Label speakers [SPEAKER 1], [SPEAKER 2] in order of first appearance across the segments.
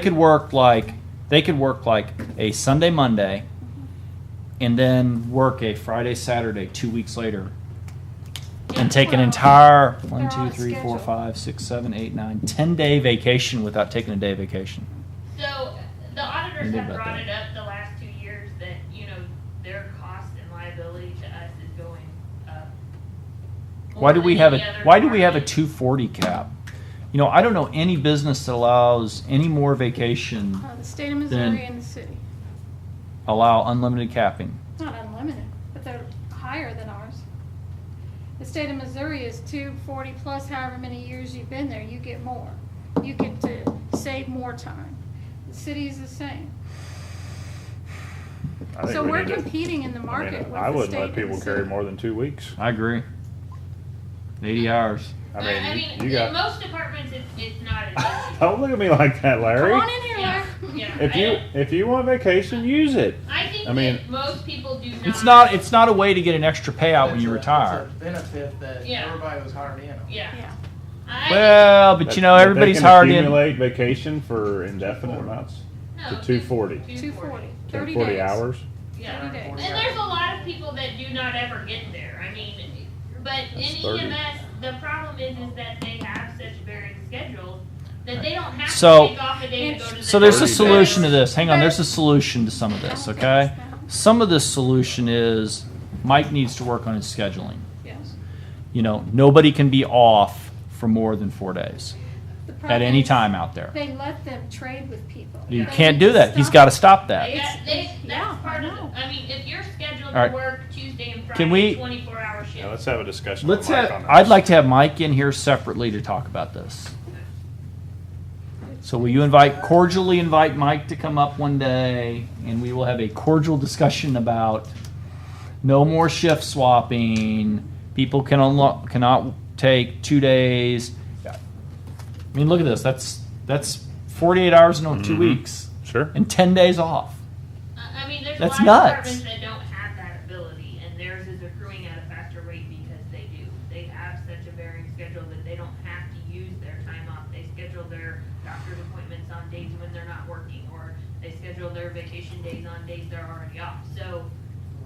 [SPEAKER 1] They could work like they could work like a Sunday Monday, and then work a Friday Saturday two weeks later, and take an entire one
[SPEAKER 2] They're on
[SPEAKER 1] two three four
[SPEAKER 2] schedule.
[SPEAKER 1] five six seven eight nine ten day vacation without taking a day vacation.
[SPEAKER 3] So the auditors
[SPEAKER 1] Think
[SPEAKER 3] have
[SPEAKER 1] about
[SPEAKER 3] brought
[SPEAKER 1] that.
[SPEAKER 3] it up the last two years that, you know, their cost and liability to us is going up.
[SPEAKER 1] Why do
[SPEAKER 3] more
[SPEAKER 1] we
[SPEAKER 3] than
[SPEAKER 1] have
[SPEAKER 3] any
[SPEAKER 1] a
[SPEAKER 3] other
[SPEAKER 1] Why do we have a
[SPEAKER 3] department.
[SPEAKER 1] two forty cap? You know, I don't know any business that allows any more vacation
[SPEAKER 2] Uh, the state of Missouri and the city.
[SPEAKER 1] allow unlimited capping.
[SPEAKER 2] It's not unlimited, but they're higher than ours. The state of Missouri is two forty plus however many years you've been there, you get more. You get to save more time. The city is the same.
[SPEAKER 4] I think
[SPEAKER 2] So
[SPEAKER 4] we
[SPEAKER 2] we're
[SPEAKER 4] need to-
[SPEAKER 2] competing in the
[SPEAKER 4] I mean,
[SPEAKER 2] market with
[SPEAKER 4] I
[SPEAKER 2] the
[SPEAKER 4] wouldn't
[SPEAKER 2] state
[SPEAKER 4] let
[SPEAKER 2] and the
[SPEAKER 4] people carry
[SPEAKER 2] city.
[SPEAKER 4] more than two weeks.
[SPEAKER 1] I agree. Eighty hours.
[SPEAKER 4] I
[SPEAKER 3] But, I
[SPEAKER 4] mean,
[SPEAKER 3] mean,
[SPEAKER 4] you- you
[SPEAKER 3] in
[SPEAKER 4] got,
[SPEAKER 3] most departments, it's, it's not an issue.
[SPEAKER 4] don't look at me like that,
[SPEAKER 2] Come
[SPEAKER 4] Larry.
[SPEAKER 2] on in here,
[SPEAKER 3] Yeah,
[SPEAKER 2] Larry.
[SPEAKER 3] yeah.
[SPEAKER 4] If you, if you want vacation, use it.
[SPEAKER 3] I think
[SPEAKER 4] I mean-
[SPEAKER 3] that most people do not.
[SPEAKER 1] It's not. It's not a way to get an extra payout when you
[SPEAKER 5] That's a-
[SPEAKER 1] retire.
[SPEAKER 5] That's a benefit that
[SPEAKER 3] Yeah.
[SPEAKER 5] everybody was hired in on.
[SPEAKER 3] Yeah.
[SPEAKER 2] Yeah.
[SPEAKER 3] I-
[SPEAKER 1] Well, but you know,
[SPEAKER 4] If they
[SPEAKER 1] everybody's
[SPEAKER 4] can
[SPEAKER 1] hard in.
[SPEAKER 4] Accumulate vacation for indefinite amounts,
[SPEAKER 3] no,
[SPEAKER 4] to 240.
[SPEAKER 2] Two forty. Thirty
[SPEAKER 4] forty
[SPEAKER 2] days.
[SPEAKER 4] hours.
[SPEAKER 3] Yeah.
[SPEAKER 2] Thirty days.
[SPEAKER 3] And there's a lot of people that do not ever get there. I mean, but
[SPEAKER 4] That's
[SPEAKER 3] in
[SPEAKER 4] 30.
[SPEAKER 3] EMS, the problem is, is that they have such varying schedules that they don't have
[SPEAKER 1] So-
[SPEAKER 3] to take off a day to go to the
[SPEAKER 1] So there's a
[SPEAKER 4] Thirty
[SPEAKER 3] doctor.
[SPEAKER 1] solution to this. Hang on, there's a solution to some of this. Okay, some of this solution is Mike needs to work on his scheduling.
[SPEAKER 2] Yes.
[SPEAKER 1] You know, nobody can be off for more than four days
[SPEAKER 2] The
[SPEAKER 1] at
[SPEAKER 2] problem
[SPEAKER 1] any
[SPEAKER 2] is
[SPEAKER 1] time out there.
[SPEAKER 2] They let them trade with people.
[SPEAKER 1] You
[SPEAKER 2] They
[SPEAKER 1] can't
[SPEAKER 2] need
[SPEAKER 1] do that. He's
[SPEAKER 2] stop
[SPEAKER 1] got to stop that.
[SPEAKER 3] Yeah, they, that's
[SPEAKER 2] yeah, I
[SPEAKER 3] part of
[SPEAKER 2] know.
[SPEAKER 3] it. I mean, if you're scheduled
[SPEAKER 1] All right.
[SPEAKER 3] to work Tuesday and Friday,
[SPEAKER 1] Can we-
[SPEAKER 3] 24 hour
[SPEAKER 4] Yeah,
[SPEAKER 3] shift.
[SPEAKER 4] let's have a discussion. with
[SPEAKER 1] Let's
[SPEAKER 4] Mike
[SPEAKER 1] have.
[SPEAKER 4] on
[SPEAKER 1] I'd
[SPEAKER 4] this.
[SPEAKER 1] like to have Mike in here separately to talk about this. So will you invite cordially invite Mike to come up one day, and we will have a cordial discussion about no more shift swapping. People can unlo- cannot take two days. I mean, look at this. That's that's forty eight hours in two
[SPEAKER 4] Mhm.
[SPEAKER 1] weeks
[SPEAKER 4] Sure.
[SPEAKER 1] and ten days off.
[SPEAKER 3] I I mean, there's
[SPEAKER 1] That's
[SPEAKER 3] a lot
[SPEAKER 1] nuts.
[SPEAKER 3] of departments that don't have that ability, and theirs is accruing at a faster rate because they do. They have such a varying schedule that they don't have to use their time off. They schedule their doctor's appointments on days when they're not working, or they schedule their vacation days on days they're already off. So,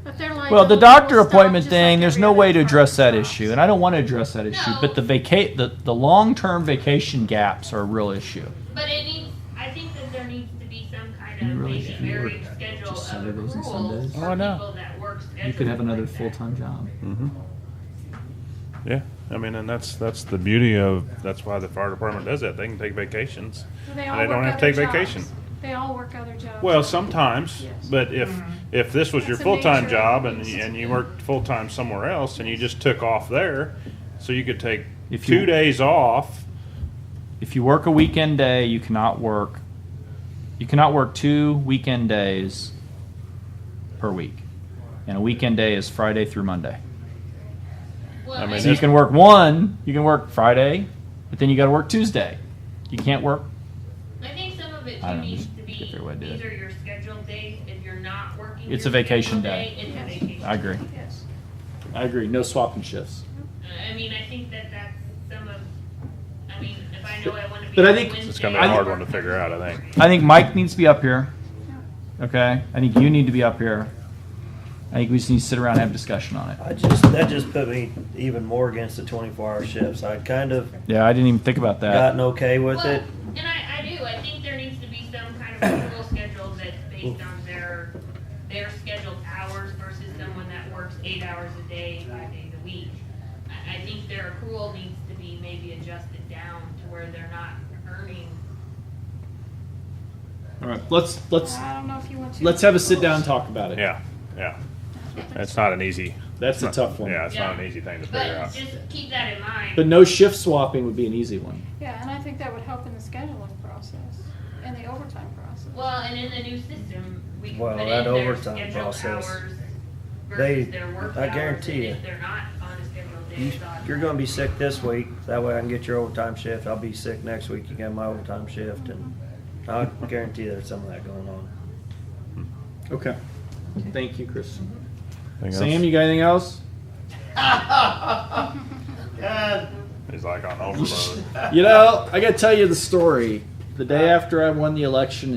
[SPEAKER 2] But they're like,
[SPEAKER 1] Well, the
[SPEAKER 2] "Oh,
[SPEAKER 1] doctor
[SPEAKER 2] we'll stop
[SPEAKER 1] appointment
[SPEAKER 2] just like
[SPEAKER 1] thing, there's
[SPEAKER 2] every
[SPEAKER 1] no
[SPEAKER 2] other
[SPEAKER 1] way to address that
[SPEAKER 2] department stops."
[SPEAKER 1] issue, and I don't want to address that issue,
[SPEAKER 3] No.
[SPEAKER 1] but the vacate, the, the long-term vacation gaps are a real issue.
[SPEAKER 3] but it needs. I think that there needs to be some kind
[SPEAKER 1] You
[SPEAKER 3] of
[SPEAKER 1] really
[SPEAKER 3] maybe
[SPEAKER 1] should be
[SPEAKER 3] varying
[SPEAKER 1] working
[SPEAKER 3] schedule
[SPEAKER 1] just
[SPEAKER 3] of
[SPEAKER 1] Saturdays and
[SPEAKER 3] accruals
[SPEAKER 1] Sundays.
[SPEAKER 3] for
[SPEAKER 4] Oh, I know.
[SPEAKER 3] people that work
[SPEAKER 1] You could have
[SPEAKER 3] schedules
[SPEAKER 1] another
[SPEAKER 3] like that.
[SPEAKER 1] full-time job.
[SPEAKER 4] Yeah, I mean, and that's, that's the beauty of, that's why the fire department does that. They can take vacations.
[SPEAKER 2] They,
[SPEAKER 4] They
[SPEAKER 2] all
[SPEAKER 4] don't
[SPEAKER 2] work
[SPEAKER 4] have to
[SPEAKER 2] other
[SPEAKER 4] take vacation.
[SPEAKER 2] jobs. They all work other jobs.
[SPEAKER 4] Well, sometimes, but if, if this was your
[SPEAKER 2] That's a
[SPEAKER 4] full-time
[SPEAKER 2] major
[SPEAKER 4] job and,
[SPEAKER 2] increase.
[SPEAKER 4] and you worked full-time somewhere else and you just took off there, so you could take
[SPEAKER 1] If you-
[SPEAKER 4] two days off,
[SPEAKER 1] If you work a weekend day, you cannot work, you cannot work two weekend days per week. And a weekend day is Friday through Monday.
[SPEAKER 3] Well,
[SPEAKER 4] I mean,
[SPEAKER 1] So you
[SPEAKER 4] that's-
[SPEAKER 1] can work one, you can work Friday, but then you gotta work Tuesday. You can't work,
[SPEAKER 3] I think some of it
[SPEAKER 1] I
[SPEAKER 3] too
[SPEAKER 1] don't
[SPEAKER 3] needs
[SPEAKER 1] just
[SPEAKER 3] to
[SPEAKER 1] get
[SPEAKER 3] be,
[SPEAKER 1] their way to do
[SPEAKER 3] these
[SPEAKER 1] it.
[SPEAKER 3] are your scheduled days, if you're not working.
[SPEAKER 1] It's
[SPEAKER 3] your
[SPEAKER 1] a vacation
[SPEAKER 3] scheduled
[SPEAKER 1] day.
[SPEAKER 3] It's
[SPEAKER 2] Yes.
[SPEAKER 3] a vacation.
[SPEAKER 1] I agree,
[SPEAKER 2] Yes.
[SPEAKER 1] I agree, no swapping shifts.
[SPEAKER 3] I mean, I think that that's some of, I mean, if I know I wanna be.
[SPEAKER 1] But I
[SPEAKER 3] on
[SPEAKER 1] think-
[SPEAKER 3] Wednesday,
[SPEAKER 4] it's gonna be a
[SPEAKER 1] I-
[SPEAKER 4] hard one to figure out, I think.
[SPEAKER 1] I think Mike needs to be up here. Okay. I think you need to be up here. I think we just need to sit around and have a discussion on it.
[SPEAKER 6] I just that just put me even more against the 24-hour shifts. I kind of
[SPEAKER 1] Yeah, I didn't even think about that.
[SPEAKER 6] gotten okay with
[SPEAKER 3] Well,
[SPEAKER 6] it.
[SPEAKER 3] And I, I do, I think there needs to be some kind of rule schedule that's based on their, their scheduled hours versus someone that works eight hours a day, five days a week. I, I think their accrual needs to be maybe adjusted down to where they're not earning.
[SPEAKER 1] All right. Let's let's
[SPEAKER 2] I don't know if you want to.
[SPEAKER 1] let's have a sit down and talk about it.
[SPEAKER 4] Yeah, yeah. That's not an easy.
[SPEAKER 1] That's a
[SPEAKER 4] not-
[SPEAKER 1] tough one.
[SPEAKER 4] Yeah, it's not an
[SPEAKER 3] Yeah.
[SPEAKER 4] easy thing to figure
[SPEAKER 3] But
[SPEAKER 4] out.
[SPEAKER 3] just keep that in mind.
[SPEAKER 1] But no shift swapping would be an easy one.
[SPEAKER 2] Yeah, and I think that would help in the scheduling process and the overtime process.
[SPEAKER 3] Well, and in the new system, we can
[SPEAKER 6] Well,
[SPEAKER 3] put
[SPEAKER 6] that
[SPEAKER 3] in their
[SPEAKER 6] overtime
[SPEAKER 3] scheduled
[SPEAKER 6] process,
[SPEAKER 3] hours
[SPEAKER 6] they-
[SPEAKER 3] versus their work
[SPEAKER 6] I
[SPEAKER 3] hours,
[SPEAKER 6] guarantee
[SPEAKER 3] and
[SPEAKER 6] you.
[SPEAKER 3] If they're not on a scheduled day,
[SPEAKER 6] You,
[SPEAKER 3] it's on-
[SPEAKER 6] you're going to be sick this week. That way I can get your overtime shift. I'll be sick next week. You got my overtime shift, and I guarantee there's some of that going on.
[SPEAKER 1] Okay. Thank you, Chris.
[SPEAKER 4] Anything
[SPEAKER 1] Sam,
[SPEAKER 4] else?
[SPEAKER 1] you got anything else?
[SPEAKER 5] God,
[SPEAKER 4] He's like on overload.
[SPEAKER 1] You know, I gotta tell you the story. the day after I won the election